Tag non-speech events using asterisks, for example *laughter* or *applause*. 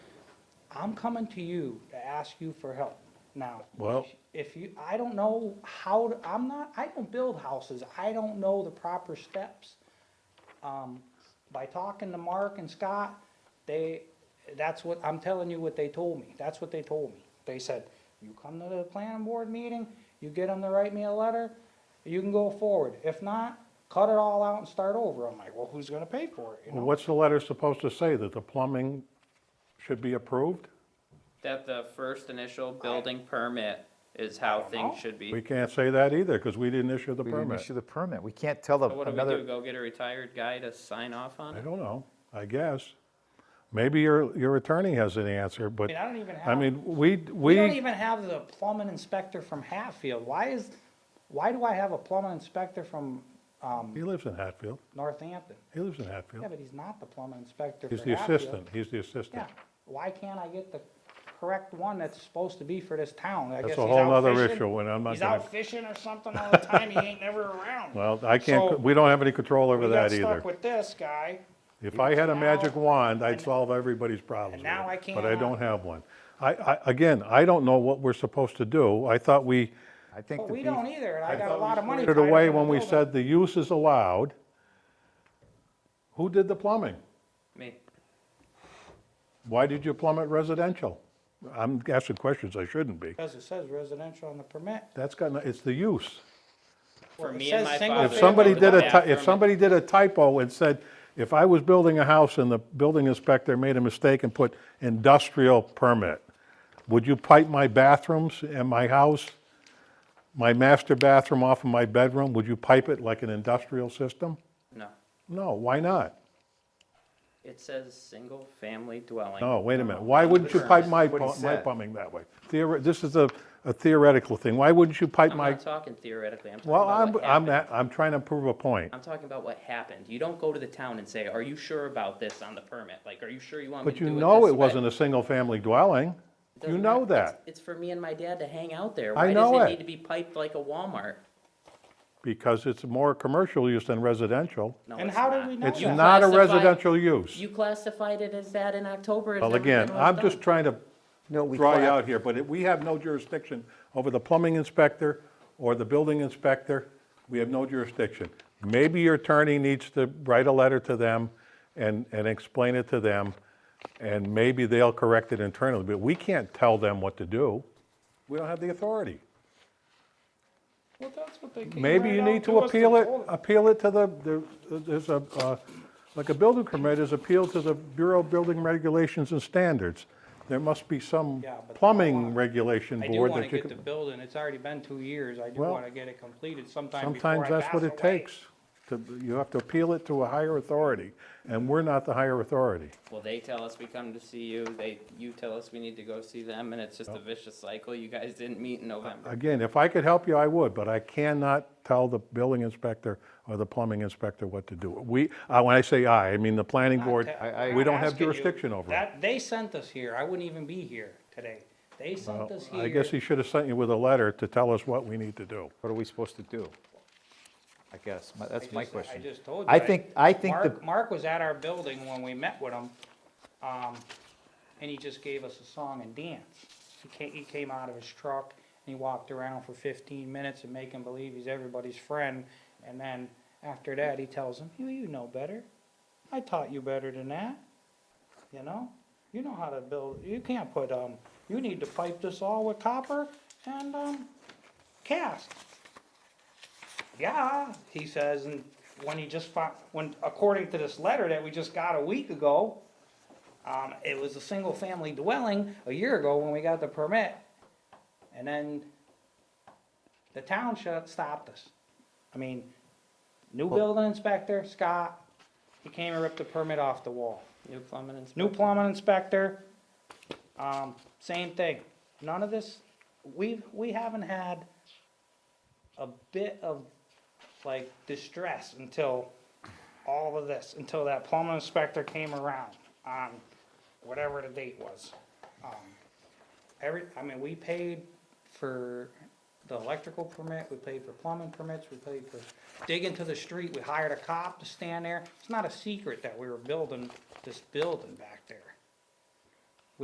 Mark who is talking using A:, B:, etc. A: I'm coming to you to ask you for help now.
B: Well-
A: If you, I don't know how, to- I'm not, I don't build houses, I don't know the proper steps. Um, by talking to Mark and Scott, they, that's what, I'm telling you what they told me, that's what they told me. They said, you come to the planning board meeting, you get them to write me a letter, you can go forward. If not, cut it all out and start over. I'm like, well, who's gonna pay for it, you
B: Well,
A: know?
B: What's the letter supposed to say, that the plumbing should be approved?
C: That the first initial building permit is how
A: know.
C: things should be.
B: We can't say that either, because we didn't issue the
D: We didn't
B: permit.
D: issue the permit. We can't tell the,
C: So what do we do,
D: another,
C: go get a retired guy to sign off on
B: I
C: it?
B: don't know, I guess. Maybe your, your attorney has an answer,
A: I
B: but,
A: mean, I don't even have.
B: I mean, we,
A: We don't
B: we,
A: even have the plumbing inspector from Hatfield. Why is, why do I have a plumbing inspector from, um,
B: he lives in Hatfield,
A: Northampton?
B: he lives in
A: Yeah,
B: Hatfield.
A: but he's not the plumbing inspector for
B: He's the
A: Hatfield.
B: assistant, he's the
A: Yeah,
B: assistant.
A: why can't I get the correct one that's supposed to be for this town? I
B: That's
A: guess
B: a
A: he's
B: whole
A: out
B: nother
A: fishing-
B: issue, and I'm not
A: He's
B: gonna-
A: out fishing or something all the time, he ain't never around.
B: *laughs* Well, I can't,
A: So-
B: we don't have any control
A: We
B: over
A: got
B: that
A: stuck
B: either.
A: with this guy,
B: If I had a
A: Now-
B: magic wand, I'd solve everybody's problems.
A: And now
B: with it,
A: I
B: But I
A: cannot.
B: don't have one. I, I, again, I don't know what we're supposed to do. I thought we
D: I think
A: but
D: the
A: we don't e-
D: beef,
A: either, and I got a lot of money
B: put
A: tied up
B: it
A: in
B: away
A: the
B: when we
A: building.
B: said the use is allowed. Who did the plumbing?
C: Me,
B: Why did you plumb it residential? I'm asking questions I shouldn't be.
A: Because it says residential on the permit.
B: That's got, no- it's the use.
C: for
A: Well, it
C: me and
A: says
C: my
A: single
C: father.
A: family
B: If somebody did a,
C: Yeah,
B: ty- if
C: permit.
B: somebody did a typo and said, if I was building a house and the building inspector made a mistake and put industrial permit, would you pipe my bathrooms and my house, my master bathroom off of my bedroom, would you pipe it like an industrial system?
C: No,
B: No, why not?
C: it says single-family dwelling.
B: No, wait a minute, why wouldn't you pipe my,
D: What he
B: pu- my
D: said.
B: plumbing that way? Theori, this is a a theoretical thing, why wouldn't you pipe
C: I'm
B: my,
C: not talking theoretically, I'm talking
B: well,
C: about
B: I'm,
C: what
B: I'm,
C: happened.
B: at- I'm trying to prove a point.
C: I'm talking about what happened. You don't go to the town and say, are you sure about this on the permit? Like, are you sure you want me to
B: But
C: do it
B: you
C: this way?
B: know it wasn't a single-family dwelling, you
C: Doesn't
B: know
C: matter. It's-
B: that.
C: It's for me and my dad to hang out there.
B: I
C: Why
B: know
C: does
B: it.
C: it need to be piped like a Walmart?
B: because it's more commercial use than residential.
C: No,
A: And
C: it's
A: how
C: not.
A: did we know
B: It's
A: that?
B: not a
C: classified-
B: residential use.
C: You classified it as that in October. It's
B: Well,
C: never
B: again,
C: been
B: I'm
C: done.
B: just trying to
D: no, we
B: draw you
D: cla-
B: out here, but it- we have no jurisdiction over the plumbing inspector or the building inspector. We have no jurisdiction. Maybe your attorney needs to write a letter to them and, and explain it to them, and maybe they'll correct it internally, but we can't tell them what to do. We don't have the authority.
A: Well, that's what they came
B: Maybe
A: right
B: you
A: out
B: need to
A: us
B: appeal it,
A: told us.
B: appeal it to the, there- there's a, uh, like a building permit is appealed to the Bureau of Building Regulations and Standards. There must be some
A: Yeah, but-
B: plumbing regulation
A: I do
B: board
A: wanna
B: that you
A: get the
B: can.
A: building, it's already been two years, I do
B: Well,
A: wanna get it completed sometime before
B: Sometimes
A: I
B: that's what
A: pass
B: it
A: away.
B: takes. to- You have to appeal it to a higher authority, and we're not the higher authority.
C: Well, they tell us we come to see you, they, you tell us we need to go see them, and it's just a vicious cycle. You guys didn't meet in November.
B: Again, if I could help you, I would, but I cannot tell the building inspector or the plumbing inspector what to do. We, uh, when I say I, I mean the planning board,
D: I-
B: we don't have
A: Asking you,
B: jurisdiction over it.
A: That, they sent us here, I wouldn't even be here today. They sent us here.
B: I guess he should have sent you with a letter to tell us what we need to do.
D: what are we supposed to do? I guess, my-
A: I
D: that's my
A: just- I
D: question.
A: just told you.
D: I think, I think the,
A: Mark, Mark was at our building when we met with him, um, and he just gave us a song and dance. He came, he came out of his truck, and he walked around for fifteen minutes and make him believe he's everybody's friend, and then after that, he tells him, you, you know better. I taught you better than that, you know? You know how to build, you can't put, um, you need to pipe this all with copper and, um, cast. Yeah, he says, and when he just found, when, according to this letter that we just got a week ago, um, it was a single-family dwelling a year ago when we got the permit. And then the town shut, stopped us. I mean, new building inspector, Scott, he came and ripped the permit off the wall.
C: New plumbing inspector.
A: New plumbing inspector, um, same thing. None of this, we've, we haven't had a bit of, like, distress until all of this, until that plumbing inspector came around on whatever the date was. Um, Every, I mean, we paid for the electrical permit, we paid for plumbing permits, we paid for digging to the street, we hired a cop to stand there. It's not a secret that we were building this building back there.